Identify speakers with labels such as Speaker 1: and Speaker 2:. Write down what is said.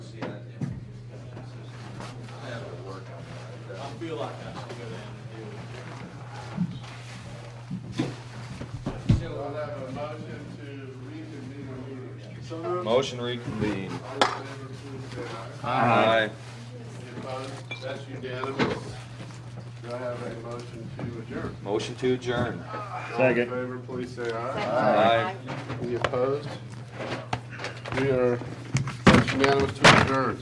Speaker 1: feel like I should go down and deal
Speaker 2: So I have a motion to reconvene the meeting. So moved.
Speaker 3: Motion reconvened.
Speaker 2: All in favor, please say aye.
Speaker 3: Aye.
Speaker 2: Any opposed? That's unanimous. Do I have a motion to adjourn?
Speaker 3: Motion to adjourn.
Speaker 2: Second. All in favor, please say aye.
Speaker 3: Aye.
Speaker 2: Any opposed? We are that's unanimous to adjourn.